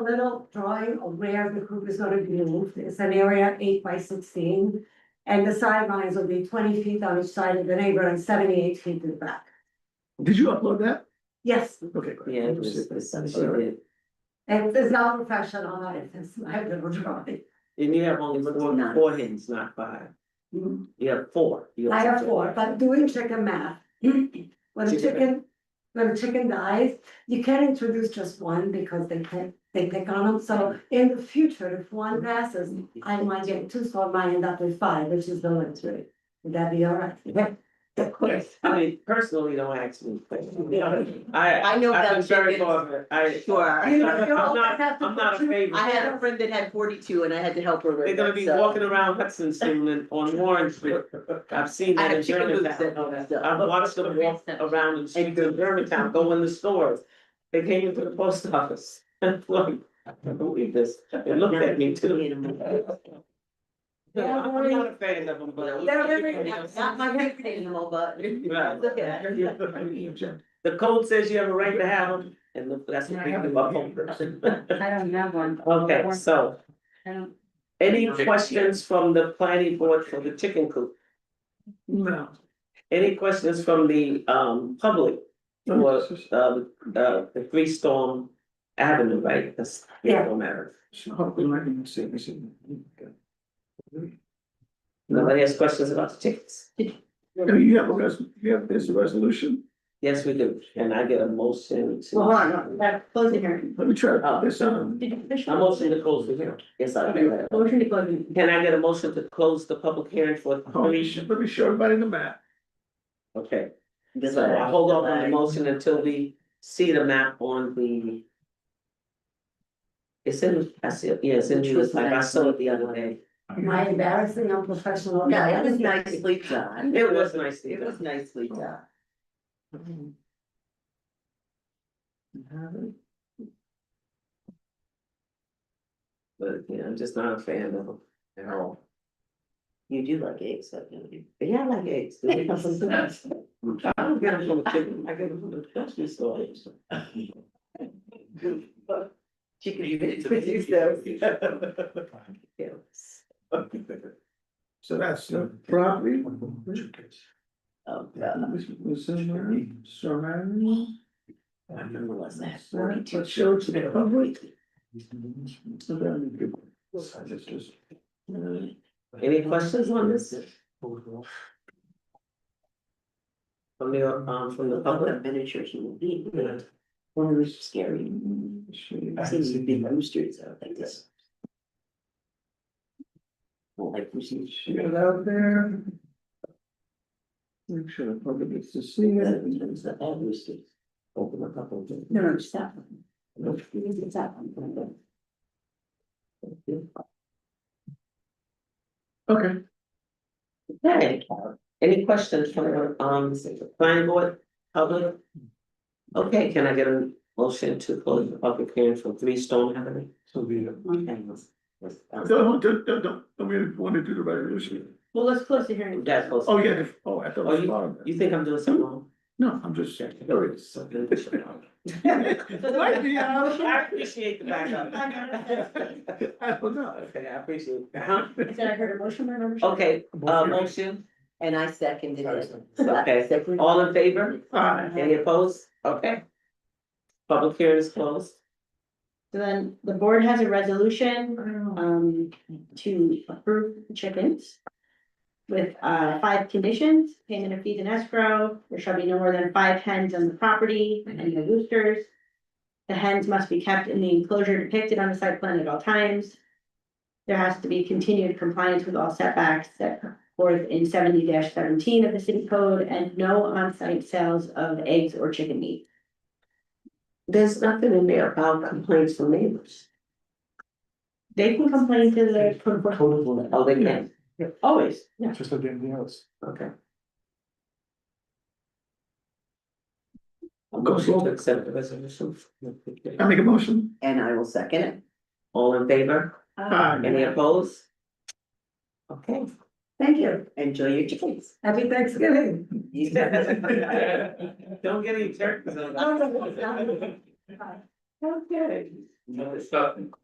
little drawing of where the coop is gonna be moved, it's an area eight by sixteen. And the sidelines will be twenty feet on each side of the neighbor and seventy-eight feet in the back. Did you upload that? Yes, Okay. great. Yeah, it was, it was something she did. it is not professional, it's, I have little drawing. And you have only four, Nine. four hens, not five. You have four. You I have four, but doing chicken math. When a Chicken chicken, when a chicken dies, you can't introduce just one because they can, they pick on them, so in the future, if one passes. I might get two, so I might end up with five, which is the limit, right? Would that be all right? Of course. I mean, personally, don't ask me. I, I know I've been about very chickens. far, I. Sure. I'm not, I'm not a favorite. I had a friend uh, that had forty-two and I had to help her with They're it, gonna be so- walking around Hudson soon and on Warren Street. I've seen I that have in chicken hoops Germantown. that do stuff. I've watched them walk around in streets in Germantown, go in the stores. They came into the post office. Like, I can't believe this. They looked at me too. Yeah, I'm not a fan of them, but. They're very- Not my favorite animal, but look at her. The code says you have a right to have them, and look, that's what we do about homeowners. I don't have one. Okay, so I don't, any questions from the planning board for the chicken coop? No. Any questions from the um public for um uh the Three Storm Avenue, right? That's Three Yeah. Storm Avenue. No, Nobody has questions about the chickens? you have a res, you have this resolution? Yes, we do. And I get a motion well, to, hold on, we gotta close the hearing. Let me try to put this on. Did you finish? a motion to close the hearing. Yes, I do that. Motion to close. the- Can I get a motion to close the public hearing for Oh, we three? should- Let me show everybody the map. Okay. So I hold on on the motion until we see the map on the. It's in, I see, it. yeah, it's in, it's like I saw it the other day. Am I embarrassing, unprofessional? No, that was nicely done. It was nice to It was nicely done. do. But, yeah, I'm just not a fan of them at all. You do like eggs, don't you? But yeah, I like eggs. I don't get them from the chicken, I get them from the grocery store. Chicken. You get it to produce those. Yes. Um, So that's the property. Oh, God. Was- was in there, surrounding. I remember last night, But 42. show it to the Oh, public. So then you could- I just- just- Any questions on this? From the, um, from the What a public? miniature human being. One of those scary. I've seen these big roosters out like this. Well, like roosters. She got out there. Make sure the public gets to see Yeah, it. it's been set up, roosters. Open up a couple of them. No, no, just that one. You need to get that one. Okay. Okay. Any questions from, the, um, planning board, public? Okay, can I get a motion to close the public hearing for Three Stone Avenue? So be it. That Don't, don't, don't, don't, I mean, want to do the resolution. Well, let's close the hearing. close. Oh, yeah, the- oh, I thought Oh, it was long. You think I'm doing something wrong? No, I'm just checking. There it is. Might be, I don't I know. appreciate the backup. I don't know. Okay, I appreciate it. Is that I heard a motion, my membership? Okay, uh, motion, And I seconded it. okay, all in favor? Alright, Any opposed? Okay. Public hearing is closed. So then the board has a resolution um to approve the chickens. With uh five conditions, payment of fees and escrow, there shall be no more than five hens on the property and no roosters. The hens must be kept in the enclosure depicted on the site plan at all times. There has to be continued compliance with all setbacks set forth in seventy seventeen of the city code and no on-site sales of eggs or chicken meat. There's nothing in there about complaints from neighbors. They can complain to the code enforcement Oh, they can? Always? Yeah. Just like anything else. Okay. Motion to accept the resolution. I make a motion. And I will second it. All in favor? Aye. Any opposed? Okay. Thank you, Enjoy your chickens. happy Thanksgiving. Don't get any turkeys on that. Okay. No, it's not.